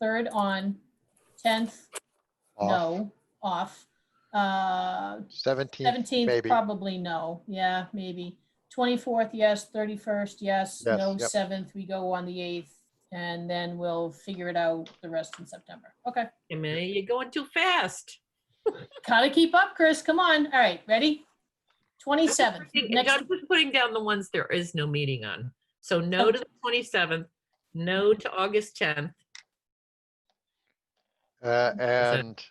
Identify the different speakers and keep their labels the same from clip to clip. Speaker 1: third on, tenth,
Speaker 2: off.
Speaker 1: no, off. Uh,
Speaker 2: 17th,
Speaker 1: seventeenth,
Speaker 2: maybe.
Speaker 1: probably no, yeah, maybe. Twenty-fourth, yes, thirty-first, yes,
Speaker 2: Yes,
Speaker 1: no,
Speaker 2: yep.
Speaker 1: seventh, we go on the eighth, and then we'll figure it out the rest in September. Okay,
Speaker 3: Hey, man, you're going too fast.
Speaker 1: gotta keep up, Chris, come on, all right, ready? Twenty-seventh,
Speaker 3: I'm
Speaker 1: next,
Speaker 3: just putting down the ones there is no meeting on. So no to the 27th,
Speaker 1: Mm-hmm.
Speaker 3: no to August 10th.
Speaker 2: uh, and,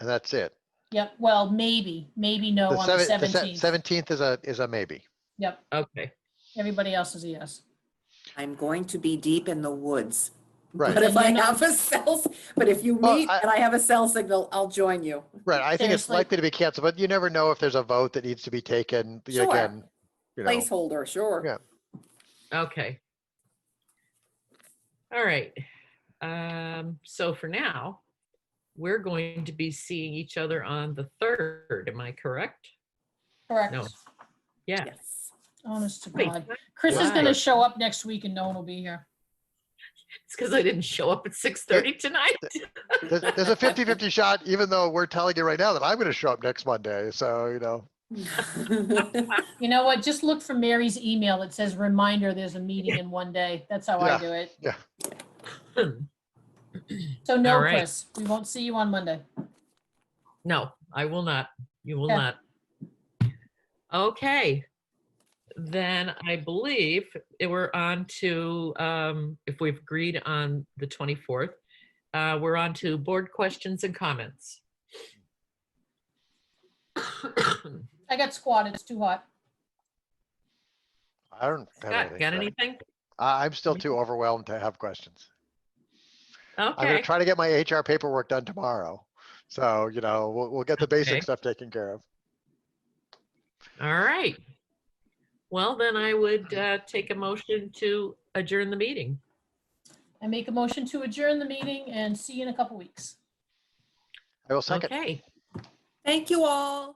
Speaker 2: and that's it.
Speaker 1: yep, well, maybe, maybe no
Speaker 2: The
Speaker 1: on the
Speaker 2: seven- the se-
Speaker 1: seventeenth,
Speaker 2: 17th is a, is a maybe.
Speaker 1: yep,
Speaker 3: Okay.
Speaker 1: everybody else is a yes.
Speaker 4: I'm going to be deep in the woods.
Speaker 2: Right,
Speaker 4: But if I
Speaker 1: And you're not-
Speaker 4: have a cell, but if you
Speaker 2: Well,
Speaker 4: meet
Speaker 2: I-
Speaker 4: and I have a cell signal, I'll join you.
Speaker 2: right. I think it's
Speaker 1: Seriously.
Speaker 2: likely to be canceled, but you never know if there's a vote that needs to be taken you know,
Speaker 4: Sure.
Speaker 2: again. You know,
Speaker 4: Placeholder, sure.
Speaker 2: Yeah.
Speaker 3: Okay. All right. Um, so for now, we're going to be seeing each other on the third. Am I correct?
Speaker 1: Correct,
Speaker 3: No. Yeah.
Speaker 4: Yes.
Speaker 1: honest to
Speaker 3: Wait,
Speaker 1: God. Chris is
Speaker 3: Wow.
Speaker 1: gonna show up next week and no one will be here.
Speaker 3: It's because I didn't show up at six thirty tonight.
Speaker 2: There's there's a 50-50 shot, even though we're telling you right now that I'm going to show up next Monday. So, you know,
Speaker 1: You know what? Just look for Mary's email. It says reminder, there's a meeting in one day. That's how I
Speaker 2: Yeah.
Speaker 1: do it.
Speaker 3: Hmm.
Speaker 1: So no,
Speaker 3: All right.
Speaker 1: Chris, we won't see you on Monday.
Speaker 3: No, I will not. You will
Speaker 1: Okay.
Speaker 3: not. Okay. Then I believe it- we're on to, um, if we've agreed on the twenty-fourth, uh, we're on to board questions and comments.
Speaker 1: I got squatted. It's too hot.
Speaker 2: I don't have
Speaker 3: Scott,
Speaker 2: anything.
Speaker 3: got
Speaker 2: so
Speaker 3: anything?
Speaker 2: I, I'm still too overwhelmed to have questions. I'm going
Speaker 3: Okay.
Speaker 2: to try to get my HR paperwork done tomorrow. So, you know, we'll, we'll get the
Speaker 3: Okay.
Speaker 2: basic stuff taken care of.
Speaker 3: All right. Well, then I would uh, take a motion to adjourn the meeting.
Speaker 1: I make a motion to adjourn the meeting and see you in a couple weeks.
Speaker 2: I will second.
Speaker 3: Okay.
Speaker 4: Thank you all.